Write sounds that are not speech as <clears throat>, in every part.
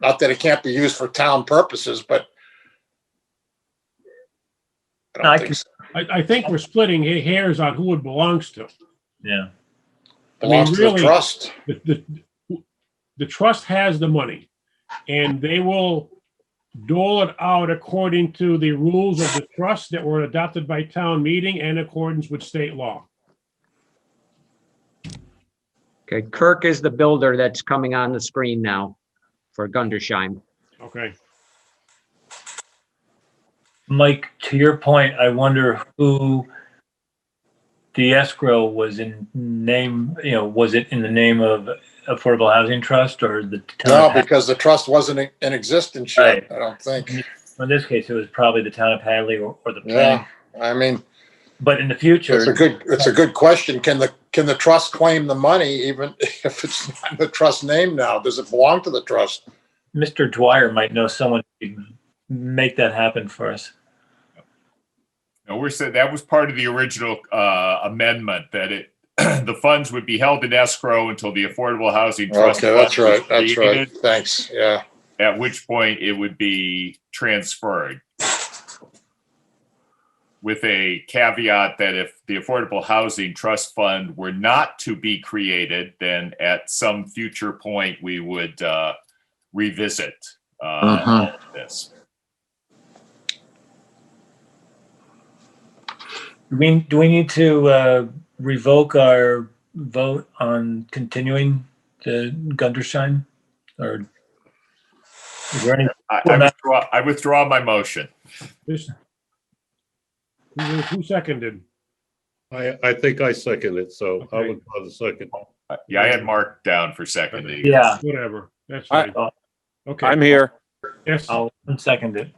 Not that it can't be used for town purposes, but. I No, I don't think can- so. I, I think we're splitting ha- hairs on who it belongs to. Yeah. I mean, Belongs to the really- trust. The, the, the trust has the money and they will dole it out according to the rules of the trust that were adopted by town meeting and accordance with state law. Okay, Kirk is the builder that's coming on the screen now for Gundersheim. Okay. Mike, to your point, I wonder who the escrow was in name, you know, was it in the name of Affordable Housing Trust or the No, town? of because the trust wasn't in- in existence yet, I don't think. Had- In this case, it was probably the town of Hadley or, or the Yeah, plan. I mean, But in the future, it's a good, it's a good question. Can the, can the trust claim the money even <laughs> if it's not in the trust name now? Does it belong to the trust? Mr. Dwyer might know someone who can make that happen for us. No, we're saying that was part of the original uh, amendment that it, <clears throat> the funds would be held in escrow until the Affordable Housing Trust. Okay, that's Fund was right, that's right. created, Thanks, yeah. At which point it would be transferred. With a caveat that if the Affordable Housing Trust Fund were not to be created, then at some future point, we would uh, revisit uh, all Uh-huh. of this. Do we, do we need to uh, revoke our vote on continuing the Gundersheim? Or is there any, I- I Well, that- withdraw- I withdraw my motion. This. Who, who seconded? I, I think I second it, so I Okay. would call the second. Yeah, I had Mark down for seconding. yeah, Whatever. That's I- uh, fine. Okay. I'm here. Yes. I'll second it.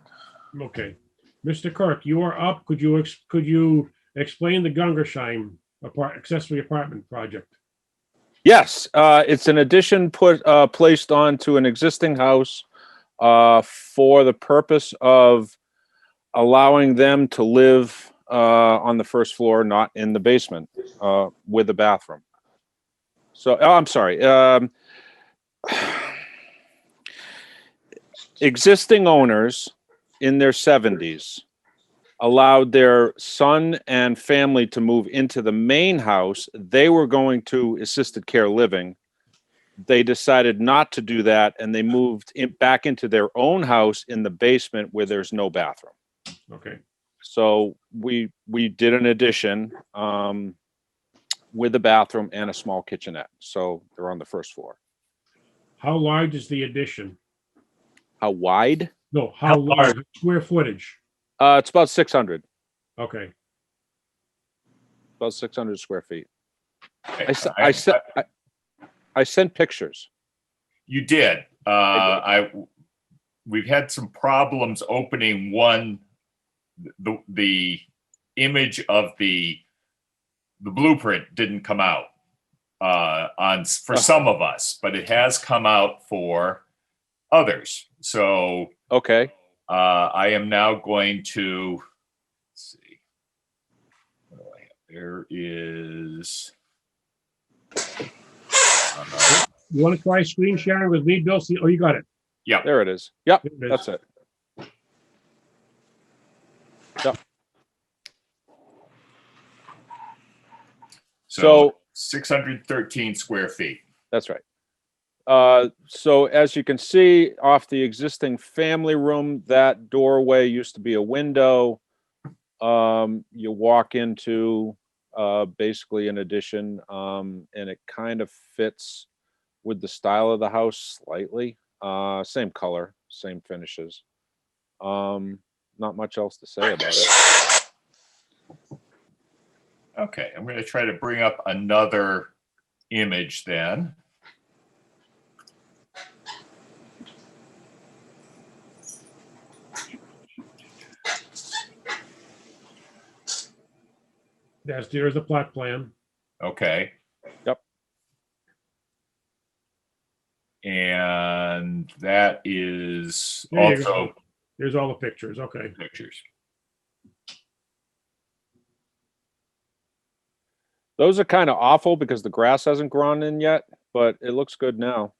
Okay. Mr. Kirk, you are up. Could you, ex- could you explain the Gungersheim apart, accessory apartment project? Yes, uh, it's an addition put, uh, placed onto an existing house, uh, for the purpose of allowing them to live, uh, on the first floor, not in the basement, uh, with a bathroom. So, oh, I'm sorry, um, <sighs> existing owners in their seventies allowed their son and family to move into the main house. They were going to assisted care living. They decided not to do that and they moved in, back into their own house in the basement where there's no bathroom. Okay. So we we did an addition um, with a bathroom and a small kitchenette. So they're on the first floor. How large is the addition? How wide? No, how How large? large, square footage? Uh, it's about 600, Okay. about 600 square feet. I, I- s- I, s- I, I sent pictures. You did. Uh, I, we've had some problems opening one, the, the image of the, the blueprint didn't come out uh, on, s- for some of us, but it has come out for others. So Okay, Uh, I am now going to, let's see. What do I have? There is. uh, You want to try screen sharing with me, Bill? See, oh, you got it. there it is. Yep, Here it is. that's it. So So- six hundred thirteen square feet. That's right. Uh, so as you can see off the existing family room, that doorway used to be a window. Um, you walk into, uh, basically an addition, um, and it kind of fits with the style of the house slightly. Uh, same color, same finishes. Um, not much else to say about it. Okay, I'm gonna try to bring up another image then. That's, there's the plot plan. Okay. Yep. And that is There you go. also There's all the pictures. Okay. pictures. Those are kind of awful because the grass hasn't grown in yet, but it looks good now.